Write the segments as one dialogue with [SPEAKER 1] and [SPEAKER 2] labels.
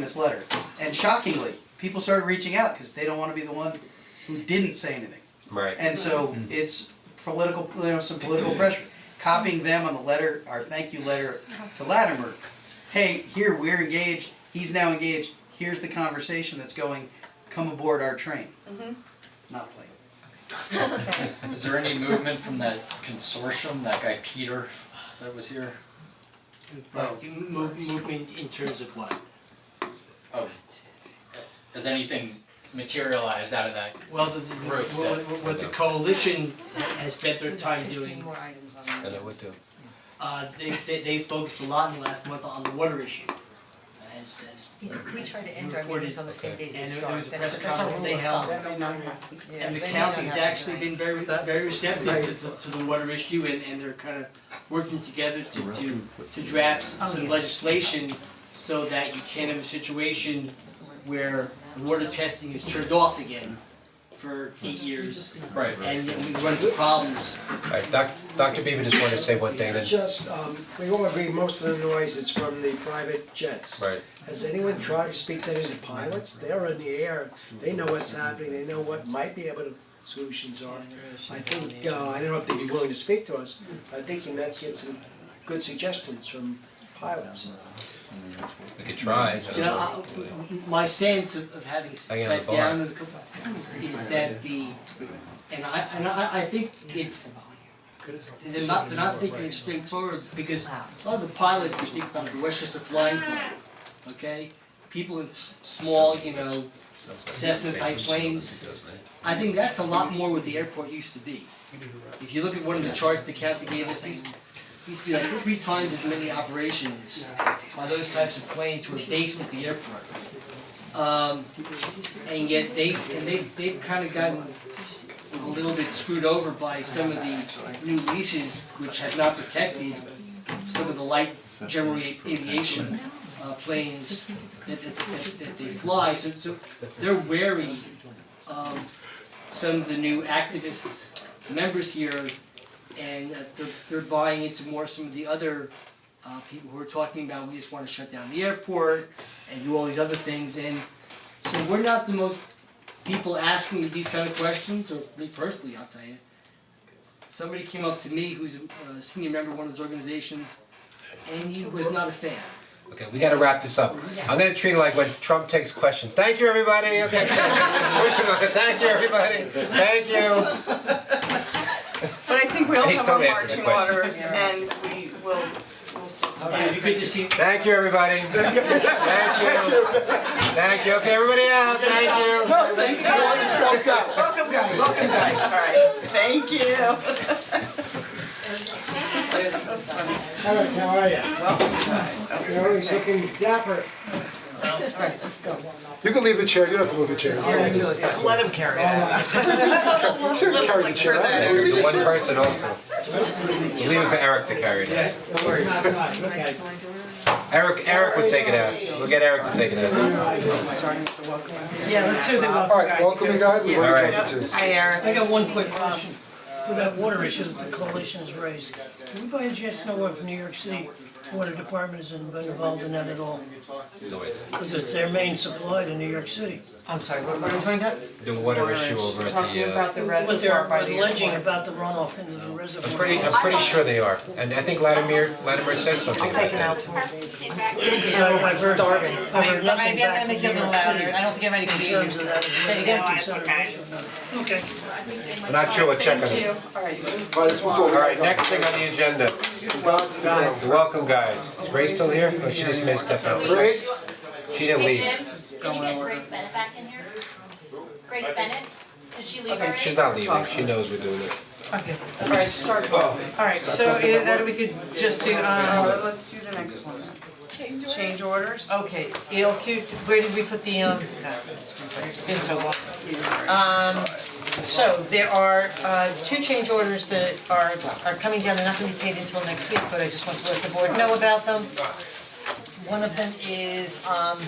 [SPEAKER 1] this letter. And shockingly, people started reaching out because they don't want to be the one who didn't say anything.
[SPEAKER 2] Right.
[SPEAKER 1] And so it's political, you know, some political pressure. Copying them on the letter, our thank you letter to Latimer. Hey, here, we're engaged, he's now engaged, here's the conversation that's going, come aboard our train.
[SPEAKER 3] Mm-hmm.
[SPEAKER 1] Not plane.
[SPEAKER 4] Is there any movement from that consortium, that guy Peter that was here?
[SPEAKER 1] Oh.
[SPEAKER 5] Move- Movement in terms of what?
[SPEAKER 4] Oh. Has anything materialized out of that?
[SPEAKER 5] Well, the, the, the-
[SPEAKER 4] Right.
[SPEAKER 5] what, what- what the coalition has spent their time
[SPEAKER 6] Fifteen
[SPEAKER 5] doing,
[SPEAKER 6] more items on the.
[SPEAKER 2] And it would do.
[SPEAKER 5] uh, they, they, they focused a lot in the last month on the water issue. And,
[SPEAKER 6] You know, we try to
[SPEAKER 5] You
[SPEAKER 6] end our
[SPEAKER 5] reported-
[SPEAKER 6] meetings on the same
[SPEAKER 2] Okay.
[SPEAKER 6] day they
[SPEAKER 5] And there-
[SPEAKER 6] start,
[SPEAKER 5] there's a
[SPEAKER 6] that's,
[SPEAKER 5] press
[SPEAKER 6] that's our rule
[SPEAKER 5] conference
[SPEAKER 6] of
[SPEAKER 5] they held.
[SPEAKER 6] thumb.
[SPEAKER 5] and,
[SPEAKER 6] Yeah,
[SPEAKER 5] and the
[SPEAKER 6] they may not
[SPEAKER 5] county's
[SPEAKER 6] have it
[SPEAKER 5] actually
[SPEAKER 6] tonight.
[SPEAKER 5] been very, very receptive to, the- to the water issue and, and they're kind of working together to, to, to draft
[SPEAKER 6] Oh,
[SPEAKER 5] some
[SPEAKER 6] yeah.
[SPEAKER 5] legislation so that you can't have a situation where the water testing is turned off again for eight years.
[SPEAKER 4] Right.
[SPEAKER 5] And we run into problems.
[SPEAKER 2] Alright, Doc, Dr. Beaver just wanted to say one thing then,
[SPEAKER 7] Just, um, we all agree most of the noise is from the private jets.
[SPEAKER 2] right,
[SPEAKER 7] Has anyone tried to speak to any of the pilots? They're in the air, they know what's happening, they know what might be able to, solutions are. I think, uh, I don't know if they'd be willing to speak to us, but I think you might get some good suggestions from pilots.
[SPEAKER 2] we could try.
[SPEAKER 5] You know, I- my sense of of having
[SPEAKER 2] I get the
[SPEAKER 5] sat
[SPEAKER 2] bar.
[SPEAKER 5] down with a couple, is that the, and I, and I, I think it's, they're not, they're not thinking it straightforward, because a lot of the pilots, you think about the Westchester Flying Club, okay? People in s- small, you know, Cessna type planes. I think that's a lot more what the airport used to be. If you look at one of the charts the county gave us, these, used to be like three times as many operations by those types of planes were based at the airport. Um, and yet they, and they, they've kinda gotten a little bit screwed over by some of the new leases which have not protected some of the light general aviation uh planes that that that that they fly, so so they're wary of some of the new activist members here and uh, they're they're buying into more some of the other uh people who are talking about, we just wanna shut down the airport and do all these other things and so we're not the most people asking me these kind of questions, or me personally, I'll tell you. Somebody came up to me who's a senior member of one of those organizations, and he was not a fan.
[SPEAKER 2] Okay, we gotta wrap this up. I'm gonna treat it like when Trump takes questions. Thank you, everybody, okay. Pushing on it. Thank you, everybody, thank you.
[SPEAKER 3] But I think we all
[SPEAKER 2] He
[SPEAKER 3] have
[SPEAKER 2] still
[SPEAKER 3] our
[SPEAKER 2] answered the question.
[SPEAKER 3] marching orders and we will, we'll see.
[SPEAKER 5] It'd be good to see.
[SPEAKER 2] Thank you, everybody. Thank you. Thank you, okay, everybody out, thank you.
[SPEAKER 3] Welcome, guys, welcome, guys, all right, thank you. That's funny.
[SPEAKER 7] Eric, how are you? You're always looking dapper.
[SPEAKER 8] You can leave the chair, you don't have to move the chair.
[SPEAKER 3] Let him carry it out.
[SPEAKER 8] Sure, carry the chair.
[SPEAKER 2] There's one person also. We'll Leave it for Eric to carry it out.
[SPEAKER 1] No worries.
[SPEAKER 7] Outside, okay.
[SPEAKER 2] Eric, Eric would take it out, we'll get Eric to take it out.
[SPEAKER 5] Yeah, let's do that.
[SPEAKER 8] Alright, welcome you guys, we've already
[SPEAKER 2] Alright.
[SPEAKER 8] talked to you.
[SPEAKER 3] Hi, Eric.
[SPEAKER 5] I got one quick question.
[SPEAKER 9] with that water issue that the coalition has raised, do we by any chance know if New York City Water Department has been involved in that at all?
[SPEAKER 2] No idea.
[SPEAKER 9] Because it's their main supply to New York City.
[SPEAKER 6] I'm sorry, what what are we talking about?
[SPEAKER 2] The water issue over at
[SPEAKER 6] Talking
[SPEAKER 2] the, uh,
[SPEAKER 6] about the
[SPEAKER 9] What
[SPEAKER 6] reservoir
[SPEAKER 9] they're
[SPEAKER 6] by the
[SPEAKER 9] alleging
[SPEAKER 6] airport.
[SPEAKER 9] about the runoff into the reservoir.
[SPEAKER 2] I'm pretty, I'm pretty sure they are, and I think Latimer, Latimer said something about that.
[SPEAKER 9] So I've heard,
[SPEAKER 6] Starving.
[SPEAKER 9] I've heard nothing
[SPEAKER 6] Maybe
[SPEAKER 9] back
[SPEAKER 6] I'm gonna
[SPEAKER 9] from
[SPEAKER 6] give
[SPEAKER 9] New
[SPEAKER 6] them
[SPEAKER 9] York City
[SPEAKER 6] louder, I don't think I'm any
[SPEAKER 9] in
[SPEAKER 6] good at
[SPEAKER 9] terms of that,
[SPEAKER 6] Say it
[SPEAKER 9] is
[SPEAKER 6] again.
[SPEAKER 9] really considered an issue or not. Okay.
[SPEAKER 2] I'm not sure what check on
[SPEAKER 3] Thank you,
[SPEAKER 2] it.
[SPEAKER 3] all right.
[SPEAKER 8] Alright, let's move forward.
[SPEAKER 2] Alright, next thing on the agenda, the welcome guide. Is Ray still here, or she just made a step out?
[SPEAKER 8] Grace,
[SPEAKER 2] She didn't leave,
[SPEAKER 10] Can you get Grace Bennett back in here? Grace Bennett, did she leave already?
[SPEAKER 2] she's not leaving, she knows we're doing it.
[SPEAKER 3] Okay, all right, start. All right, so uh, that we could just do, um. Let's do the next one. Change orders? Okay, ELQ, where did we put the, um, no, it's been so long. Um, so there are, uh, two change orders that are, are coming down, they're not gonna be paid until next week, but I just want to let the board know about them.
[SPEAKER 6] One of them is, um,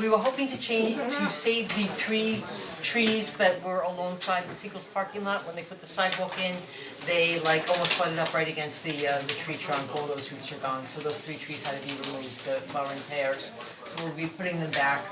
[SPEAKER 6] we were hoping to change, to save the three trees that were alongside the Seagulls parking lot. When they put the sidewalk in, they like almost flooded up right against the, uh, the tree trunk, all those roots are gone. So those three trees had to be removed, the flowering pears. So we'll be putting them back.